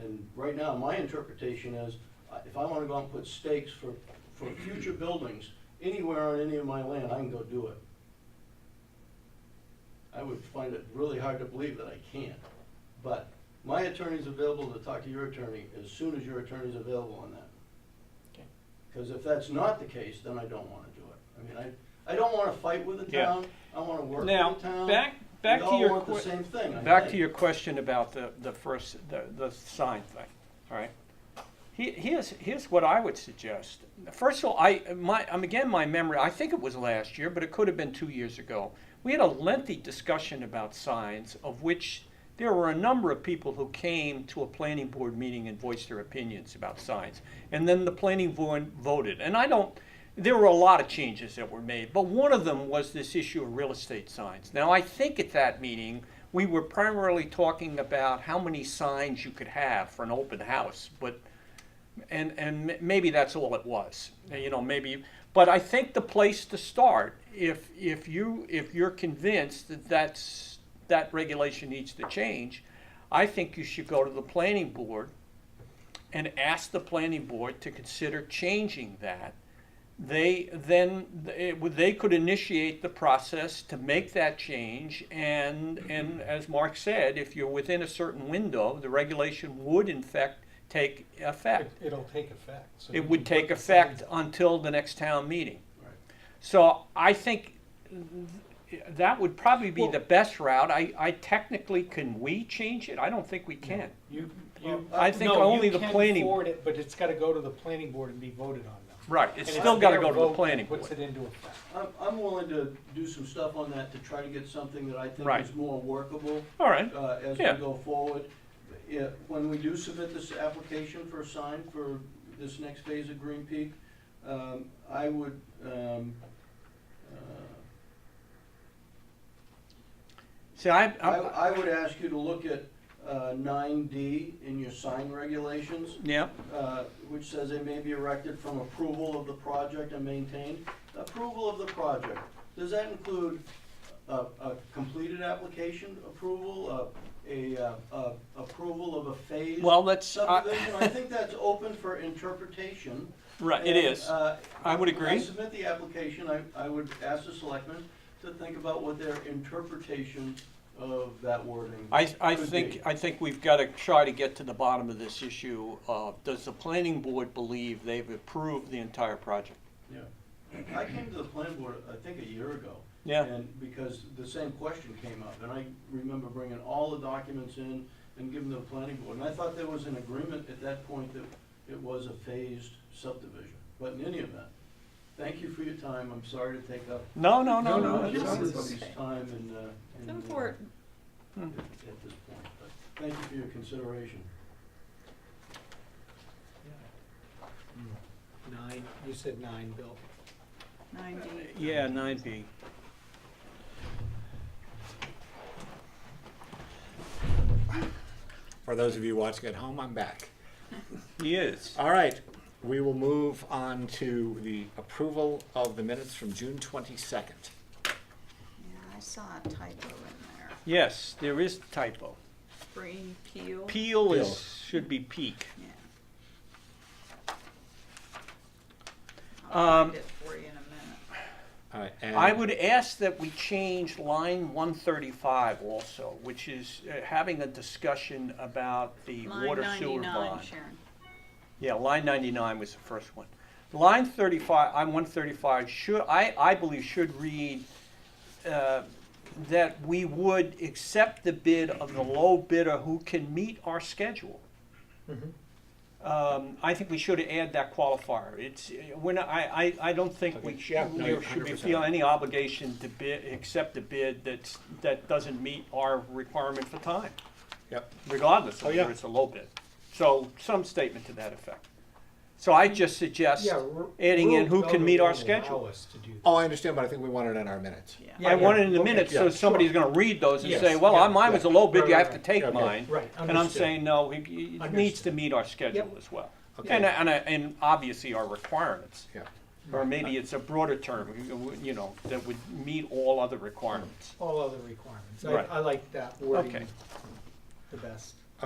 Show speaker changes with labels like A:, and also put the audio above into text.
A: and right now, my interpretation is, uh, if I wanna go out and put stakes for, for future buildings, anywhere on any of my land, I can go do it. I would find it really hard to believe that I can't, but my attorney's available to talk to your attorney as soon as your attorney's available on that.
B: Okay.
A: Cause if that's not the case, then I don't wanna do it. I mean, I, I don't wanna fight with the
B: Yeah.
A: town, I wanna work with the
B: Now,
A: town.
B: back, back to
A: We all
B: your,
A: want the
B: que-
A: same thing, I
B: back
A: think.
B: to your question about the, the first, the, the sign thing, all right? He- Here's, here's what I would suggest. First of all, I, my, um, again, my memory, I think it was last year, but it could have been two years ago. We had a lengthy discussion about signs, of which there were a number of people who came to a planning board meeting and voiced their opinions about signs. And then the planning board voted. And I don't, there were a lot of changes that were made, but one of them was this issue of real estate signs. Now, I think at that meeting, we were primarily talking about how many signs you could have for an open house, but and and m- maybe that's all it was. You know, maybe. But I think the place to start, if if you if you're convinced that that's that regulation needs to change, I think you should go to the planning board and ask the planning board to consider changing that. They then it, would- they could initiate the process to make that change, and and as Mark said, if you're within a certain window, the regulation would in fact take effect
C: It- It'll take effect. so you
B: it would
C: can
B: take
C: put the signs
B: effect until the next town meeting.
A: Right.
B: So I think th- that would probably be the
C: Well-
B: best route. I, I technically, can we change it? I don't think we can.
C: You,
A: Well,
C: you.
B: I think
C: no, you
B: only the
C: can
B: planning-
C: forward it, But it's gotta go to the planning board and be voted on now.
B: Right, it's
C: And
B: still gotta
C: their
B: go to the
C: vote
B: planning
C: that
B: board.
C: Puts it into effect.
A: I'm, I'm willing to do some stuff on that to try to get something that I think
B: Right.
A: is more workable,
B: All right,
A: uh, as we
B: Yeah.
A: go forward. Yeah, when we do submit this application for a sign for this next phase of Green Peak, um, I would, um, uh,
B: see, I,
A: I,
B: I,
A: I would ask you to look at, uh, nine D in your sign regulations.
B: yeah,
A: uh, which says they may be erected from approval of the project and maintained. Approval of the project, does that include a, a completed application approval, a, a, uh, a approval of a phase?
B: well, uh, that's,
A: Subdivision, I
B: I,
A: think that's open for interpretation.
B: right, it
A: And,
B: is.
A: uh,
B: I would
A: When I
B: agree.
A: submit the application, I, I would ask the selectmen to think about what their interpretation of that wording.
B: I, I
A: could
B: think,
A: be.
B: I think we've got to try to get to the bottom of this issue of, does the planning board believe they've approved the entire project?
A: Yeah. I came to the planning board, I think, a year ago.
B: Yeah.
A: And because the same question came up, and I remember bringing all the documents in and giving them to the planning board. And I thought there was an agreement at that point that it was a phased subdivision. But in any event, thank you for your time. I'm sorry to take up
B: No, no, no,
C: No, no,
B: no.
C: it's
B: it's-
C: all right.
A: everybody's time and, uh. and,
D: It's
A: uh,
D: important.
A: At at this point, but thank you for your consideration.
C: Nine, you said nine, Bill.
D: Nine D.
B: Yeah, nine B.
E: For those of you watching at home, I'm back.
B: He is.
E: All right, we will move on to the approval of the minutes from June twenty-second.
D: Yeah, I saw a typo in there.
B: Yes, there is typo.
D: Green peel.
B: Peel
E: Peel.
B: is, should be peak.
D: Yeah. I'll
B: Um,
D: find it for you in a
E: All right,
B: I
E: and
B: would ask that we change line one thirty-five also, which is uh, having a discussion about the
D: minute.
B: water sewer
D: Line ninety-nine,
B: bond.
D: Sharon.
B: Yeah, line ninety-nine was the first one. Line thirty-five, I'm one thirty-five, should, I, I believe should read, uh, that we would accept the bid of the low bidder who can meet our schedule.
E: Mm-hmm.
B: Um, I think we should add that qualifier. It's, we're not, I, I, I don't think we
E: Okay,
B: should,
E: yeah, no,
B: we
E: you're
B: should be
E: 100%.
B: feel any obligation to bid, accept a bid that's, that doesn't meet our requirement for time.
E: Yep.
B: Regardless of
E: Oh, yeah.
B: whether it's a low bid. So some statement to that effect. So I just suggest
C: Yeah, ru-
B: adding in
C: rule
B: who can
C: doesn't
B: meet our
C: allow
B: schedule.
C: us to do that.
E: oh, I understand, but I think we want it in our minutes.
D: Yeah.
B: I
C: yeah,
B: want it in the
C: okay,
B: minutes,
E: yeah,
B: so somebody's gonna read those and
C: Yes,
B: say, well,
C: yeah,
B: mine was a
E: yeah.
B: low bid,
C: Right,
B: you
C: right,
B: have to
C: right.
B: take
E: Yeah, okay.
B: mine.
C: Oh, Right,
B: And I'm
C: understood.
B: saying, no, it- it needs to
C: Understood.
B: meet our schedule
C: Yep.
B: as well.
E: Okay.
B: And, and, and obviously our requirements.
E: Yeah.
C: Mm-hmm.
B: Or maybe it's a broader term, you know, that would meet all other requirements.
C: All other requirements. I,
B: Right.
C: I like that wording
B: Okay.
C: the best.